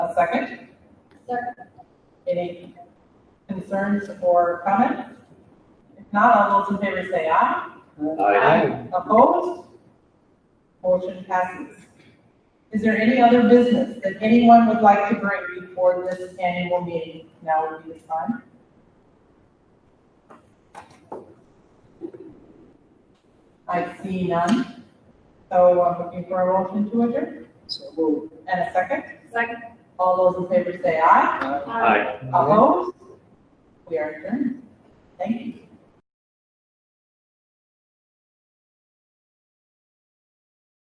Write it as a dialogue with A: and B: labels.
A: a second.
B: Second.
A: Any concerns or comments? If not, all those in favor say aye.
C: Aye.
A: Opposed? Motion passes. Is there any other business that anyone would like to bring before this annual meeting? Now would be the time. I see none. So I'm looking for a motion to adjourn
C: So moved.
A: and a second.
B: Second.
A: All those in favor say aye.
C: Aye. Aye.
A: Opposed? We are adjourned. Thank you.